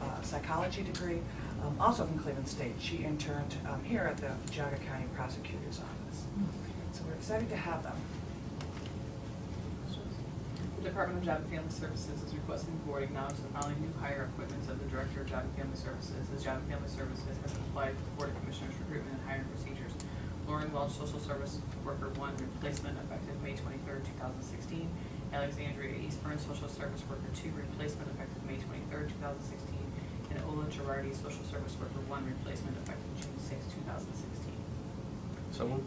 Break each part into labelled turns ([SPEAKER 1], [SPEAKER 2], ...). [SPEAKER 1] uh, psychology degree, um, also from Cleveland State. She interned um, here at the Geauga County Prosecutor's Office. So we're excited to have them.
[SPEAKER 2] The Department of Job and Family Services is requesting the board acknowledge the following new hire appointments of the Director of Job and Family Services, as Job and Family Services has applied to the Board of Commissioners recruitment and hiring procedures. Lauren Welch, Social Service Worker One, replacement effective May twenty-third, two thousand sixteen. Alexandria Eastburn, Social Service Worker Two, replacement effective May twenty-third, two thousand sixteen. And Ola Girardi, Social Service Worker One, replacement effective June sixth, two thousand sixteen.
[SPEAKER 3] So moved.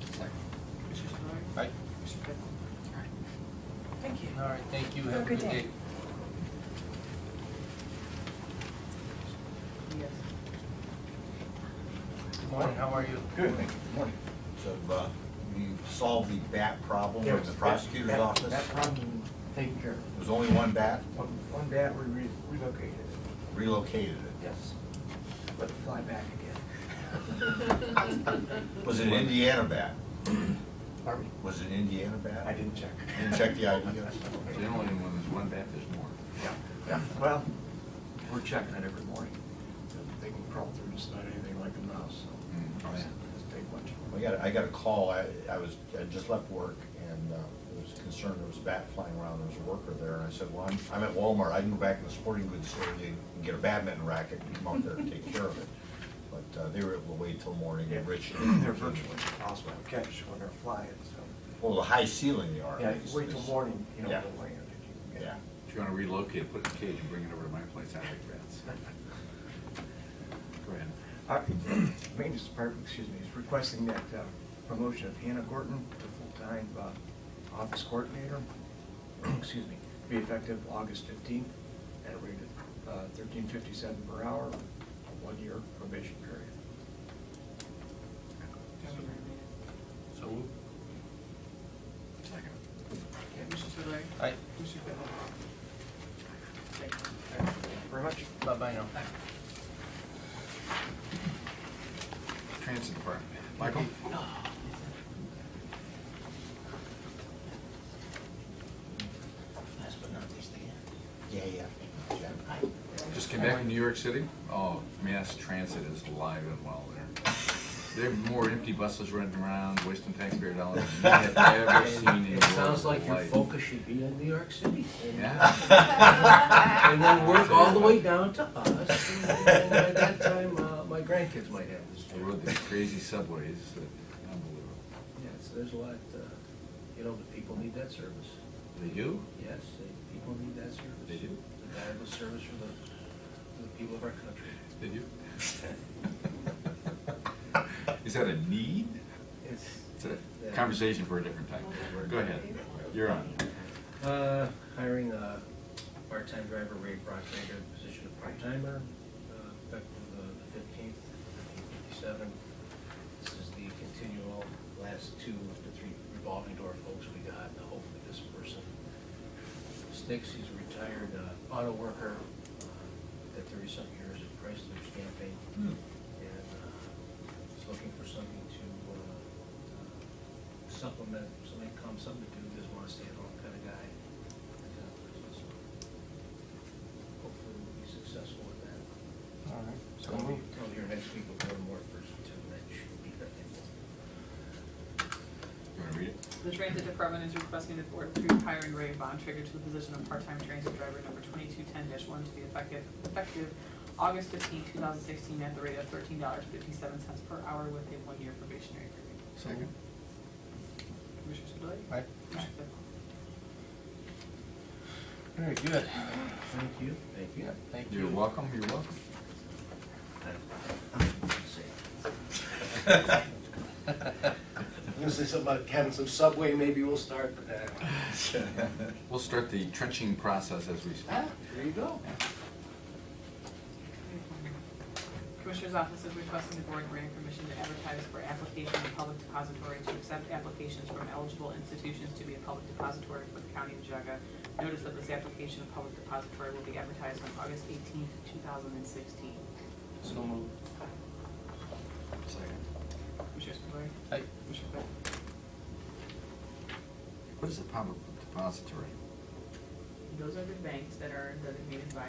[SPEAKER 2] Commissioner Spillier?
[SPEAKER 3] Right.
[SPEAKER 2] Commissioner Claypool?
[SPEAKER 1] Thank you.
[SPEAKER 3] All right, thank you.
[SPEAKER 1] Have a good day.
[SPEAKER 2] Yes.
[SPEAKER 3] Good morning, how are you?
[SPEAKER 4] Good, thank you. Morning.
[SPEAKER 5] So, uh, you solved the bat problem in the
[SPEAKER 4] Yes,
[SPEAKER 5] prosecutor's
[SPEAKER 4] that-
[SPEAKER 5] office?
[SPEAKER 4] That Oh.
[SPEAKER 5] There
[SPEAKER 4] problem taken care of.
[SPEAKER 5] was only one bat,
[SPEAKER 4] One, one bat, we re- relocated it,
[SPEAKER 5] relocated it.
[SPEAKER 4] yes. But fly back again.
[SPEAKER 5] Was it an Indiana bat?
[SPEAKER 4] Pardon me?
[SPEAKER 5] Was it an Indiana bat?
[SPEAKER 4] I didn't check.
[SPEAKER 5] Didn't check the IDs?
[SPEAKER 6] Generally, when there's one bat, there's more.
[SPEAKER 4] Yeah, yeah, well, we're checking it every morning. They can crawl through just about anything like a mouse,
[SPEAKER 6] Mm,
[SPEAKER 4] so.
[SPEAKER 6] oh, yeah.
[SPEAKER 4] Just take one.
[SPEAKER 5] I got, I got a call, I, I was, I just left work and, uh, was concerned there was a bat flying around, there was a worker there, and I said, well, I'm, I'm at Walmart, I can go back in the sporting goods store and get a badminton racket and come out there and take care of it. But, uh, they were able to wait till morning,
[SPEAKER 4] Yeah.
[SPEAKER 5] and Rich.
[SPEAKER 4] They're virtually impossible to catch when they're flying, so.
[SPEAKER 5] Well, the high ceiling they are.
[SPEAKER 4] Yeah,
[SPEAKER 5] is-
[SPEAKER 4] wait till
[SPEAKER 5] is-
[SPEAKER 4] morning, you know,
[SPEAKER 5] Yeah.
[SPEAKER 4] they'll land. if you can get
[SPEAKER 5] Yeah.
[SPEAKER 4] it.
[SPEAKER 6] If you want to relocate, put it in a cage and bring it over to my place, I like bats. Go ahead.
[SPEAKER 4] Our Maintenance Department, excuse me, is requesting that uh, promotion of Hannah Gorton to full-time uh, office coordinator, excuse me, be effective August 15th at a rate of uh, thirteen fifty-seven per hour, a one-year probation period.
[SPEAKER 3] So moved.
[SPEAKER 6] Second.
[SPEAKER 2] Commissioner Spudler.
[SPEAKER 3] Aye.
[SPEAKER 2] Commissioner Claypool.
[SPEAKER 4] Very much.
[SPEAKER 3] Bye-bye now.
[SPEAKER 6] Transit Department. Michael?
[SPEAKER 7] Last but not least, again.
[SPEAKER 5] Yeah, yeah. Yeah.
[SPEAKER 6] Just came back from New York City. Oh, mass transit is alive and well there. There are more empty buses running around, wasting taxpayer dollars than I have ever seen in
[SPEAKER 7] It sounds like your
[SPEAKER 6] life.
[SPEAKER 7] focus should be on New York City. and-
[SPEAKER 6] Yeah,
[SPEAKER 7] And then work all the way down to us, and then by that time, uh, my grandkids might have this.
[SPEAKER 6] they rode these crazy subways, uh, unbelievable.
[SPEAKER 7] Yeah, so there's a lot, uh, you know, the people need that service.
[SPEAKER 6] They do?
[SPEAKER 7] Yes, they- people need that service.
[SPEAKER 6] They do.
[SPEAKER 7] The valuable service for the, for the people of our country.
[SPEAKER 6] Did you? Is that a need?
[SPEAKER 7] It's,
[SPEAKER 6] It's a conversation for a different time. Go ahead, you're on.
[SPEAKER 7] Uh, hiring a part-time driver, Ray Brockmaker, the position of part-timer, uh, effective uh, the fifteenth, fifteen fifty-seven. This is the continual, last two of the three revolving door folks we got, and hopefully this person sticks. He's a retired uh, auto worker, uh, at thirty-something years at Chrysler Stamping,
[SPEAKER 6] Hmm.
[SPEAKER 7] and uh, he's looking for something to uh, supplement, some income, something to do, doesn't want to stay at home kind of guy. So uh, Hopefully we'll be successful with that.
[SPEAKER 3] All right. So
[SPEAKER 7] I'll be-
[SPEAKER 3] moved.
[SPEAKER 7] I'll be here next week with one more person too, and that should be that info.
[SPEAKER 6] You wanna read it?
[SPEAKER 2] The transit department is requesting the board approve hiring Ray Von Trigger to the position of part-time transit driver number twenty-two ten one to be effective, effective August 15, thousand sixteen, at the rate of thirteen dollars fifty-seven cents per hour with a one-year probationary period.
[SPEAKER 6] Second.
[SPEAKER 2] Commissioner Spudler.
[SPEAKER 3] Aye.
[SPEAKER 2] Commissioner Claypool.
[SPEAKER 3] Very good.
[SPEAKER 7] Thank you. Thank
[SPEAKER 3] Yeah, thank you.
[SPEAKER 6] You're welcome, you're welcome.
[SPEAKER 7] I'm gonna say something about having some subway, maybe we'll start with that.
[SPEAKER 6] We'll start the trenching process as we speak.
[SPEAKER 7] there you go.
[SPEAKER 2] Commissioner's office is requesting the board grant permission to advertise for application in public depository to accept applications from eligible institutions to be a public depository for the county of Jaga. Notice of this application of public depository will be advertised on August eighteenth, two thousand and sixteen.
[SPEAKER 3] So moved.
[SPEAKER 6] Second.
[SPEAKER 2] Commissioner Spudler.
[SPEAKER 3] Aye.
[SPEAKER 2] Commissioner Claypool.
[SPEAKER 6] What is a public depository?
[SPEAKER 2] Those are the banks that are designated by